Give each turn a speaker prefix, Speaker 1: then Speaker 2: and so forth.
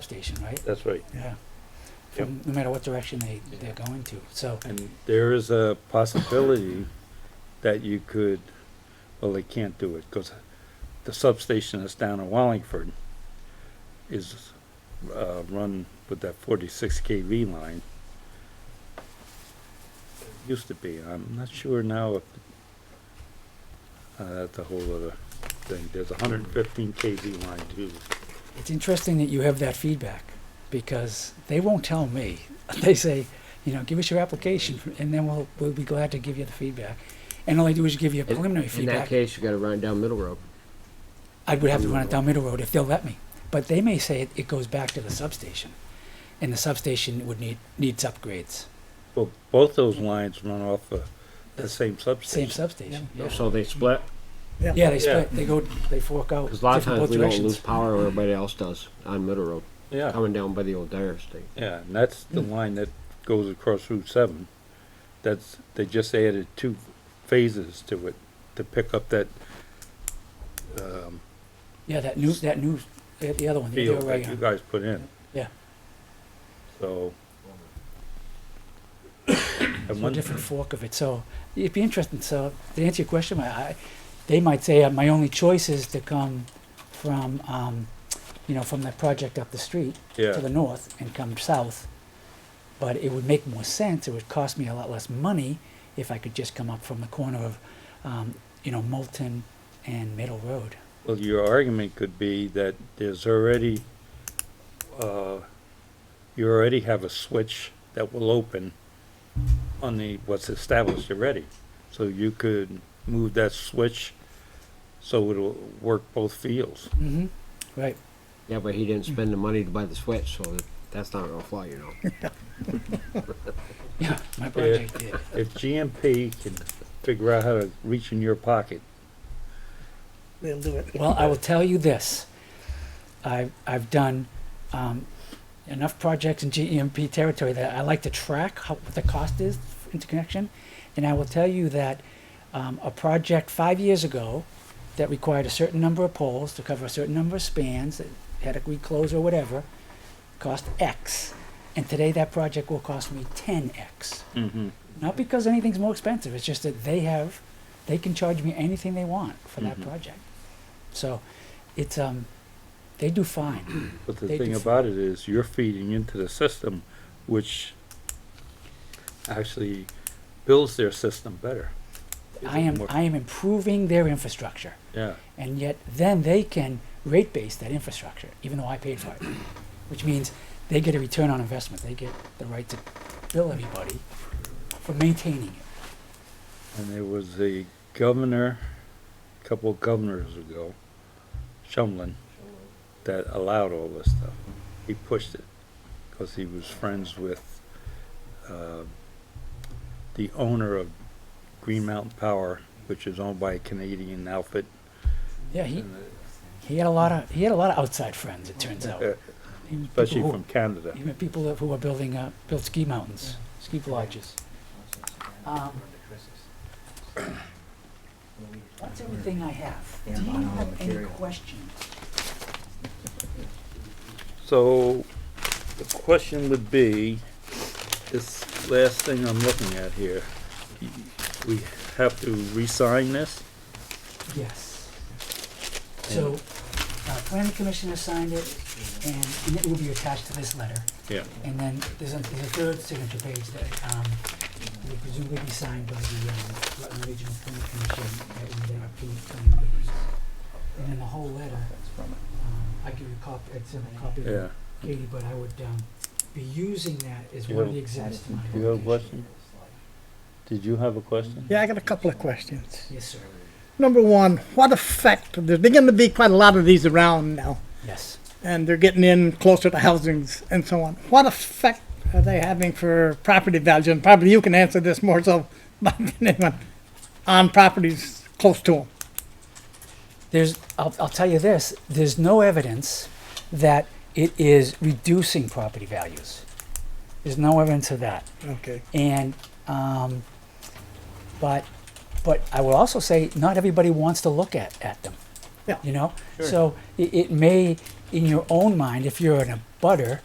Speaker 1: station, right?
Speaker 2: That's right.
Speaker 1: Yeah. From, no matter what direction they, they're going to, so,
Speaker 2: And there is a possibility that you could, well, they can't do it because the substation that's down in Wallingford is, uh, run with that forty-six KV line. It Used to be, I'm not sure now if, uh, that's a whole other thing. There's a hundred and fifteen KV line too.
Speaker 1: it's interesting that you have that feedback, because they won't tell me. They say, you know, give us your application, and then we'll, we'll be glad to give you the feedback. And all I do is give you a
Speaker 3: In-
Speaker 1: preliminary
Speaker 3: In that
Speaker 1: feedback.
Speaker 3: case, you gotta run down Middle Road.
Speaker 1: I would have to run it down Middle Road if they'll let me. But they may say it, it goes back to the substation, and the substation would need, needs upgrades.
Speaker 2: Well, both those lines run off the, the same substation.
Speaker 1: Same substation, yeah.
Speaker 3: So they split,
Speaker 1: Yeah, they split, they go, they fork out.
Speaker 3: cause a lot of
Speaker 1: different both
Speaker 3: times we don't
Speaker 1: directions.
Speaker 3: lose power, or everybody else does on Middle Road,
Speaker 2: Yeah.
Speaker 3: coming down by the old Dyer Estate.
Speaker 2: Yeah, and that's the
Speaker 1: Mm.
Speaker 2: line that goes across Route seven. That's, they just added two phases to it to pick up that, um,
Speaker 1: Yeah, that new, that new, the the other one, the
Speaker 2: field
Speaker 1: other way
Speaker 2: that you
Speaker 1: on.
Speaker 2: guys put in.
Speaker 1: Yeah.
Speaker 2: So.
Speaker 1: So
Speaker 2: And
Speaker 1: a
Speaker 2: one,
Speaker 1: different fork of it. So it'd be interesting. So to answer your question, I, I they might say uh, my only choice is to come from, um, you know, from that project up the street to
Speaker 2: yeah,
Speaker 1: the north and come south. But it would make more sense. It would cost me a lot less money if I could just come up from the corner of, um, you know, Moulton and Middle Road.
Speaker 2: well, your argument could be that there's already, uh, you already have a switch that will open on the, what's established already. So you could move that switch so it'll work both fields.
Speaker 1: Mm-hmm. Right.
Speaker 3: Yeah, but he didn't spend the money to buy the switch, so that's not gonna fly, you
Speaker 1: Hmm.
Speaker 3: know.
Speaker 1: Yeah, my project did.
Speaker 2: If GMP can figure out how to reach in your pocket,
Speaker 4: They'll do it.
Speaker 1: Well, I will tell you this. I've, I've done um, enough projects in GEMP territory that I like to track how, what the cost is for interconnection. And I will tell you that um, a project five years ago that required a certain number of poles to cover a certain number of spans, that had a reclose or whatever, cost X. And today that project will cost me 10X. Not because anything's more expensive, it's just that they have, they can charge me anything they want for that
Speaker 2: Mhm.
Speaker 1: project. So it's, um, they do fine.
Speaker 2: but the
Speaker 1: They
Speaker 2: thing
Speaker 1: do-
Speaker 2: about it is you're feeding into the system, which actually builds their system better.
Speaker 1: I am,
Speaker 2: More-
Speaker 1: I am improving their infrastructure.
Speaker 2: Yeah,
Speaker 1: And yet then they can rate base that infrastructure, even though I paid for it. Which means they get a return on investment. They get the right to bill everybody for maintaining it.
Speaker 2: and there was a governor, a couple of governors ago, Shumlin, that allowed all this stuff. He pushed it, because he was friends with, uh, the owner of Green Mountain Power, which is owned by a Canadian outfit,
Speaker 1: Yeah, he,
Speaker 2: and, uh,
Speaker 1: he had a lot of, he had a lot of outside friends, it turns out.
Speaker 2: Yeah,
Speaker 1: He knew people
Speaker 2: especially
Speaker 1: who-
Speaker 2: from Canada.
Speaker 1: Even people that- who are building, uh, built ski mountains, ski lodges. Um, That's everything I have. Do you have any questions?
Speaker 2: So, the question would be, this last thing I'm looking at here, y- we have to re-sign this?
Speaker 1: Yes. So, uh, planning commissioner signed it, and and it will be attached to this letter.
Speaker 2: Yeah.
Speaker 1: And then there's a, there's a third signature page that, um, will presumably be signed by the, um, Rutland Regional Planning Commission at one of their upcoming planning meetings. And then the whole letter, um, I give you a copy, it's in a copy
Speaker 2: Yeah.
Speaker 1: of Katie, but I would, um, be using that as one of the
Speaker 2: You-
Speaker 1: exhibits to my
Speaker 2: You have a
Speaker 1: application.
Speaker 2: question? Did you have a question?
Speaker 4: Yeah, I got a couple of questions.
Speaker 1: Yes, sir.
Speaker 4: Number one, what effect, there's going to be quite a lot of these around now,
Speaker 1: Yes.
Speaker 4: and they're getting in closer to housings and so on. What effect are they having for property values? And probably you can answer this more so than anyone, on properties close to them.
Speaker 1: There's, I'll, I'll tell you this, there's no evidence that it is reducing property values. There's no evidence of that.
Speaker 4: Okay.
Speaker 1: And, um, but, but I will also say, not everybody wants to look at, at them.
Speaker 4: Yeah.
Speaker 1: You know?
Speaker 2: Sure.
Speaker 1: So it, it may, in your own mind, if you're in a butter,